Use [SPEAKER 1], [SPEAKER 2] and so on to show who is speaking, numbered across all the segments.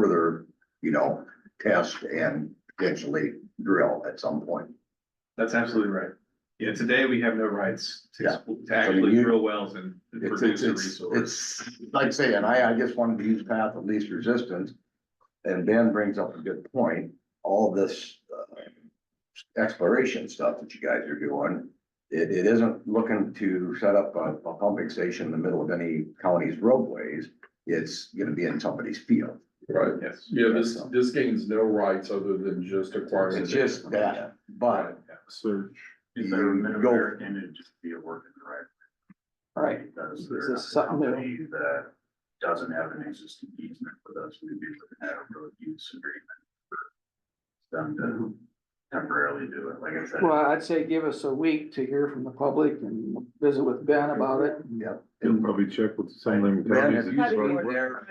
[SPEAKER 1] further, you know, test and potentially drill at some point.
[SPEAKER 2] That's absolutely right. Yeah, today we have no rights to,
[SPEAKER 1] Yeah.
[SPEAKER 2] to actually
[SPEAKER 1] you-
[SPEAKER 2] drill wells and
[SPEAKER 1] It's, it's,
[SPEAKER 2] produce the
[SPEAKER 1] it's,
[SPEAKER 2] resource.
[SPEAKER 1] it's, like saying, I, I just wanted to use path of least resistance. And Ben brings up a good point, all this uh, exploration stuff that you guys are doing. It, it isn't looking to set up a, a pumping station in the middle of any county's roadways. It's gonna be in somebody's field.
[SPEAKER 3] Right,
[SPEAKER 2] Yes.
[SPEAKER 3] yeah, this, this gains no rights other than just acquiring.
[SPEAKER 1] It's just that, but
[SPEAKER 2] Search.
[SPEAKER 1] Is there a minimum Go- area
[SPEAKER 2] image to be a working right?
[SPEAKER 4] Right,
[SPEAKER 2] Because
[SPEAKER 4] there's This is something new. somebody
[SPEAKER 2] that doesn't have an existing easement with us, we'd be looking at a road use agreement.
[SPEAKER 1] Mm-hmm.
[SPEAKER 2] Them to temporarily do it, like I said.
[SPEAKER 4] well, I'd say give us a week to hear from the public and visit with Ben about it.
[SPEAKER 1] Yeah.
[SPEAKER 5] You'll probably check with some of them.
[SPEAKER 1] Ben, have you
[SPEAKER 6] Probably
[SPEAKER 1] seen
[SPEAKER 6] more
[SPEAKER 1] their,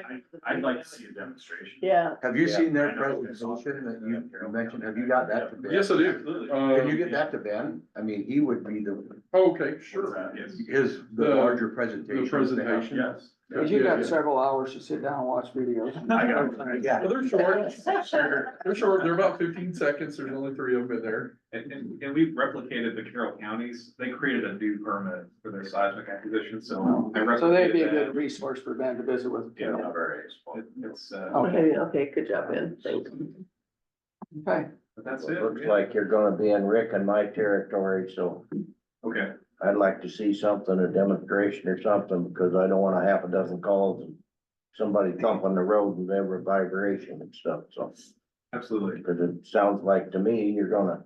[SPEAKER 2] I'd like to see a demonstration.
[SPEAKER 6] Yeah,
[SPEAKER 1] have you
[SPEAKER 3] Yeah,
[SPEAKER 1] seen
[SPEAKER 2] I
[SPEAKER 1] their
[SPEAKER 2] know.
[SPEAKER 1] presentation that you you mentioned? Have you got that to Ben?
[SPEAKER 3] Yes, I do.
[SPEAKER 2] Absolutely.
[SPEAKER 3] Uh,
[SPEAKER 1] Can you get that to Ben? I mean, he would be the,
[SPEAKER 3] Okay, sure.
[SPEAKER 2] Yes.
[SPEAKER 1] is the
[SPEAKER 3] The-
[SPEAKER 1] larger presentation.
[SPEAKER 3] The presentation.
[SPEAKER 2] Yes.
[SPEAKER 4] Cause you
[SPEAKER 3] Yeah, yeah.
[SPEAKER 4] got several hours to sit down and watch videos.
[SPEAKER 2] I got it.
[SPEAKER 1] Yeah,
[SPEAKER 3] Well, They're short, they're short, they're about fifteen seconds, there's only three of them in there.
[SPEAKER 2] And, and, and we've replicated the Carroll counties, they created a new permit for their seismic acquisition, so. I
[SPEAKER 4] So they'd be a
[SPEAKER 2] replicated
[SPEAKER 4] good
[SPEAKER 2] that.
[SPEAKER 4] resource for Ben to visit with.
[SPEAKER 2] Yeah, it- It's, uh,
[SPEAKER 4] Okay,
[SPEAKER 6] okay, okay, good job, Ben, thanks.
[SPEAKER 4] okay,
[SPEAKER 2] but that's it.
[SPEAKER 7] Looks like you're gonna be in Rick and my territory, so
[SPEAKER 2] Okay,
[SPEAKER 7] I'd like to see something, a demonstration or something, because I don't want a half a dozen calls and somebody thumping the road with every vibration and stuff, so.
[SPEAKER 2] absolutely.
[SPEAKER 7] Because it sounds like to me, you're gonna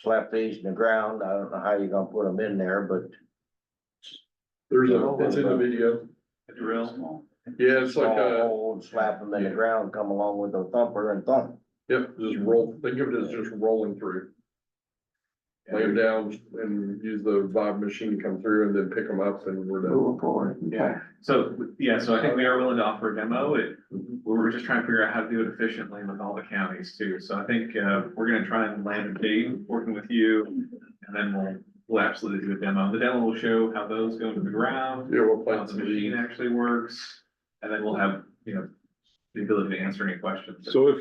[SPEAKER 7] slap these in the ground. I don't know how you're gonna put them in there, but
[SPEAKER 3] There's a, it's in the video.
[SPEAKER 2] A drill.
[SPEAKER 3] Yeah, it's like uh,
[SPEAKER 7] small
[SPEAKER 3] a,
[SPEAKER 7] hole and slap them in the ground, come along with a thumper and thump.
[SPEAKER 3] yep, just roll, think of it as just rolling through. Lay them down and use the vibe machine to come through and then pick them up and we're done.
[SPEAKER 4] moving forward.
[SPEAKER 2] Yeah, so, yeah, so I think we are willing to offer a demo, it, we were just trying to figure out how to do it efficiently with all the counties too, so I think, uh, we're gonna try and land a date, working with you. And then we'll, we'll absolutely do a demo, the demo will show how those go into the ground,
[SPEAKER 3] Yeah, we'll
[SPEAKER 2] how
[SPEAKER 3] plant
[SPEAKER 2] the
[SPEAKER 3] some
[SPEAKER 2] machine
[SPEAKER 3] seeds.
[SPEAKER 2] actually works, and then we'll have, you know, the ability to answer any questions.
[SPEAKER 5] So if-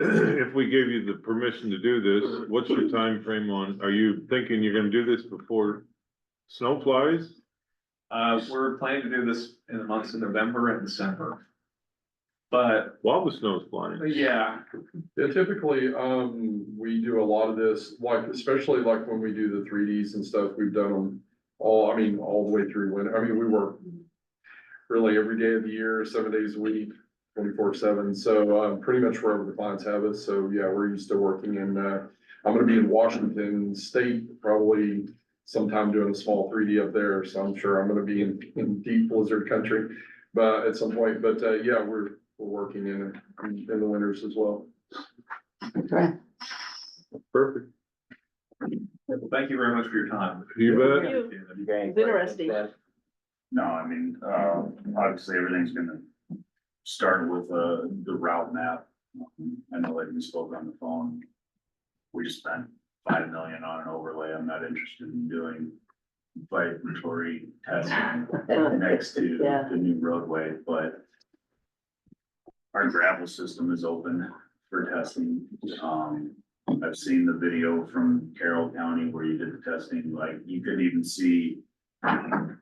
[SPEAKER 5] If we gave you the permission to do this, what's your time frame on, are you thinking you're gonna do this before snow flies?
[SPEAKER 2] Uh, we're planning to do this in the months of November and December. But,
[SPEAKER 5] While the snow's flying?
[SPEAKER 2] yeah,
[SPEAKER 3] Yeah, typically, um, we do a lot of this, like, especially like when we do the three Ds and stuff, we've done them all, I mean, all the way through winter. I mean, we work really every day of the year, seven days a week, twenty-four seven, so, um, pretty much wherever the clients have us, so, yeah, we're used to working in, uh, I'm gonna be in Washington State probably sometime doing a small three D up there, so I'm sure I'm gonna be in, in deep blizzard country, but at some point, but, uh, yeah, we're, we're working in, in the winters as well.
[SPEAKER 4] Okay,
[SPEAKER 5] Perfect.
[SPEAKER 2] well, thank you very much for your time.
[SPEAKER 5] You bet.
[SPEAKER 6] Thank
[SPEAKER 7] You ain't-
[SPEAKER 6] It's interesting.
[SPEAKER 8] No, I mean, uh, obviously, everything's gonna start with, uh, the route map. I know like we spoke on the phone. We spent five million on an overlay. I'm not interested in doing vibratory testing next to
[SPEAKER 6] Yeah.
[SPEAKER 8] the new roadway, but our gravel system is open for testing. Um, I've seen the video from Carroll County where you did the testing, like you could even see the,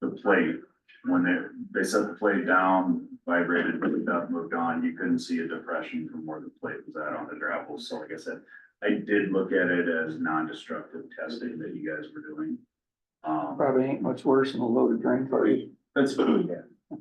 [SPEAKER 8] the plate, when they, they set the plate down, vibrated, moved up, moved on, you couldn't see a depression from where the plate was at on the gravel. So like I said, I did look at it as non-destructive testing that you guys were doing. Um,
[SPEAKER 4] probably ain't much worse than a loaded grain cart.
[SPEAKER 8] that's,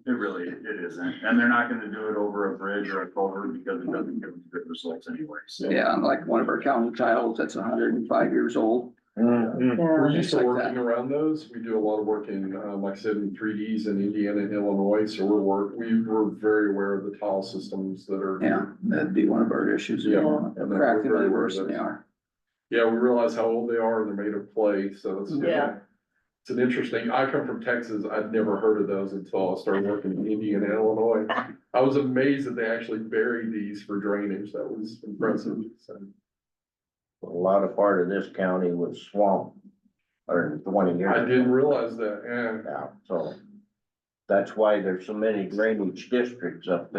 [SPEAKER 8] it really, it isn't, and they're not gonna do it over a bridge or a culvert because it doesn't give them good results anyway, so.
[SPEAKER 4] Yeah, and like one of our county titles that's hundred and five years old.
[SPEAKER 3] We're
[SPEAKER 6] Yeah,
[SPEAKER 3] used to
[SPEAKER 4] Things like that.
[SPEAKER 3] working around those. We do a lot of work in, uh, like I said, in three Ds in Indiana and Illinois, so we're work, we were very aware of the tile systems that are.
[SPEAKER 4] Yeah, that'd be one of our issues.
[SPEAKER 3] Yeah.
[SPEAKER 4] Crack them way worse than they are.
[SPEAKER 3] Yeah, we realize how old they are and they're made of clay, so it's.
[SPEAKER 6] Yeah.
[SPEAKER 3] It's an interesting, I come from Texas. I'd never heard of those until I started working in Indiana and Illinois. I was amazed that they actually buried these for drainage. That was impressive. So,
[SPEAKER 7] A lot of part of this county was swamp, or twenty years.
[SPEAKER 3] I
[SPEAKER 7] ago.
[SPEAKER 3] didn't realize that, yeah.
[SPEAKER 7] Yeah, so
[SPEAKER 8] That's why there's so many drainage districts up there.